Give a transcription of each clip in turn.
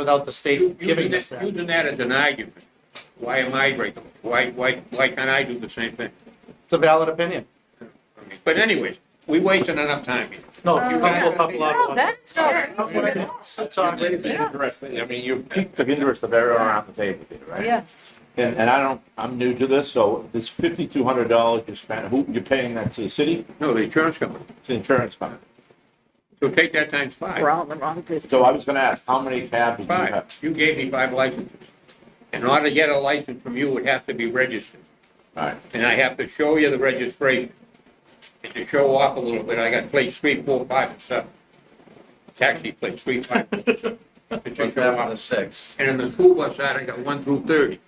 without the You- state you do giving us that- You that. do that as an argument. Why am I right? Why, why, why can't I do the same thing? It's a valid opinion. I mean, But anyways, we wasted enough time here. No, Uh, you can yeah. pop up a lot. No, that's Okay. not. So talk- I mean, you piqued the interest of everyone around the table here, right? Yeah, And, and I don't, I'm new to this, so this fifty-two hundred dollars you spent, who, you're paying that to the city, No, the insurance company. to the insurance company? So take that times five. we're all in the wrong business. So I was gonna ask, how many cabs do you Five. have? You gave me five licenses. In order to get a license from you, it would have to be registered. All right, And I have to show you the registration. And to show off a little bit, I got plates three, four, five, and seven. Taxi plates three, five. and seven. It's to Put show that one off. to six. And on the school bus side, I got one through thirty,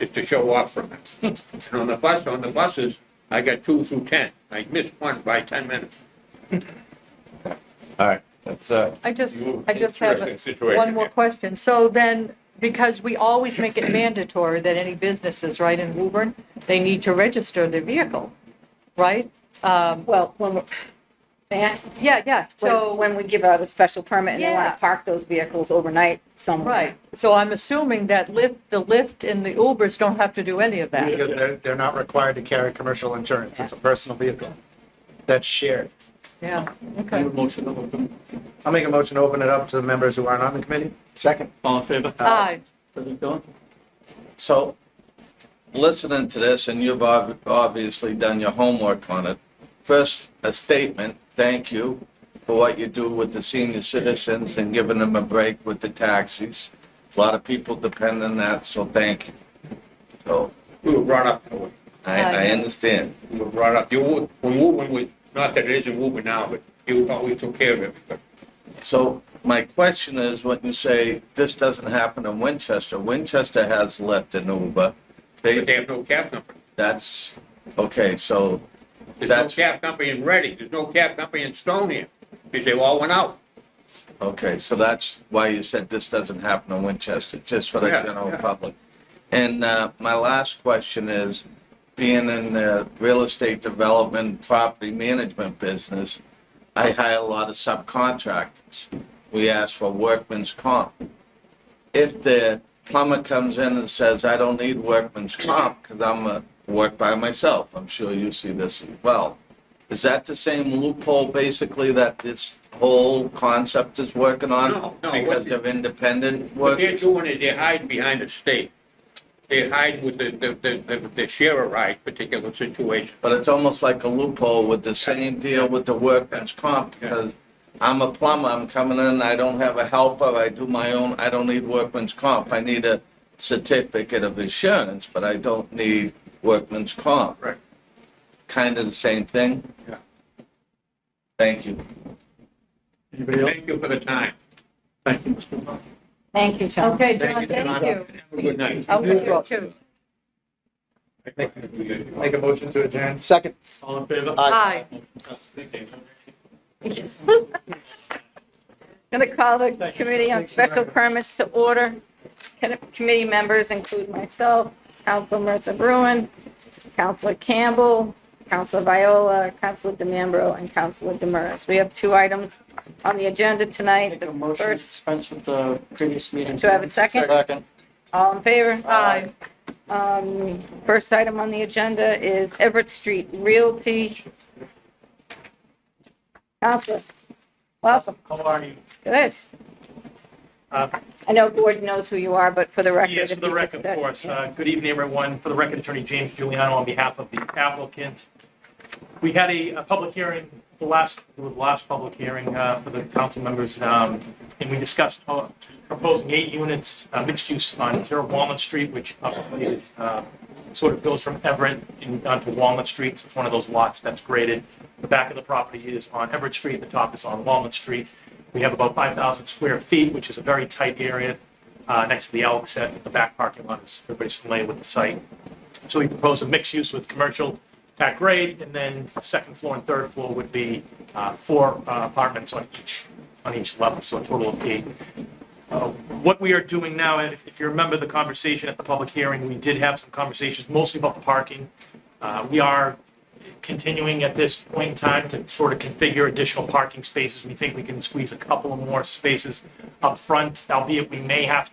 just to show off from it. And on the bus, on the buses, I got two through ten. I missed one by ten minutes. all right, that's, uh, I just, I just have Interesting a- situation one more here. question. So then, because we always make it mandatory that any businesses, right, in Woburn, they need to register their vehicle, right? Um, Well, when, we're- Matt, Yeah, yeah, so so, when we give out a special permit and they want Yeah. to park those vehicles overnight somewhere. right. So I'm assuming that Lyft, the Lyft and the Ubers don't have to do any of that. Because they're, they're not required to carry commercial insurance. It's a personal vehicle that's shared. Yeah, Okay. okay. I'll make a motion to open it up to the members who aren't on the committee. Uh, Second. All in favor? Aye, President Dillon? So, listening to this, and you've ob- obviously done your homework on it. First, a statement, thank you for what you do with the senior citizens and giving them a break with the taxis. A lot of people depend on that, so thank you. So, We were brought up that way. I, I understand. We were brought up, you, were- when Woburn was, not that it isn't Woburn now, but you always took care of everybody. So my question is, when you say this doesn't happen in Winchester, Winchester has left an Uber. But they They, have no cab company. that's, okay, so There's no That's- cab company in Reading. There's no cab company in Stoneham. Because they all went out. Okay, so that's why you said this doesn't happen in Winchester, just for the Yeah, general yeah. public. And uh, my last question is, being in the real estate development, property management business, I hire a lot of subcontractors. We ask for workman's comp. If the plumber comes in and says, I don't need workman's comp because I'm a work by myself, I'm sure you see this as well. Is that the same loophole basically that this whole concept is working on? No, no, Because what the- of independent What work? they're doing is they're hiding behind the state. They're hiding with the, the, the- the, the share a ride particular situation. But it's almost like a loophole with the same deal with the workman's comp, because I'm a plumber, I'm coming in, I don't have a helper, I do my own, I don't need workman's comp. I need a certificate of insurance, but I don't need workman's comp. Right. Kind of the same thing? Yeah. Thank you. Anybody else? Thank you for the time. Thank you, Mr. Dillon. Thank you, John. okay, John, thank John. you. Have a good night. Okay, you too. Make a motion to adjourn. Second. All in favor? Aye. Going to call the Committee on Special Permits to order. Can- Committee members include myself, Counselor Mercer Bruin, Counselor Campbell, Counselor Viola, Counselor DeMambro, and Counselor Demers. We have two items on the agenda tonight. Make a The motion to first, dispense with the previous meeting. do I have a second? Second. All in favor? Aye. Um, First item on the agenda is Everett Street Realty. Counselor, welcome. How are you? Good. Uh, I know Gordon knows who you are, but for the record. Yes, for if the you could record, of start- course. Uh, Good evening, everyone. For the record, Attorney James Giuliano on behalf of the applicant. We had a, a public hearing, the last, the last public hearing uh, for the council members, um, and we discussed uh, proposing eight units, uh, mixed use on Terra Walnut Street, which obviously is, uh, sort of goes from Everett in- onto Walnut Street. It's one of those lots that's graded. The back of the property is on Everett Street, the top is on Walnut Street. We have about 5,000 square feet, which is a very tight area uh, next to the Elks at the back parking lot. is- Everybody's familiar with the site. So we propose a mixed use with commercial at grade, and then second floor and third floor would be uh, four uh, apartments on each, on each level, so a total of eight. Uh, What we are doing now, and if if you remember the conversation at the public hearing, we did have some conversations mostly about the parking. Uh, We are continuing at this point in time to sort of configure additional parking spaces. We think we can squeeze a couple of more spaces up front, albeit we may have to.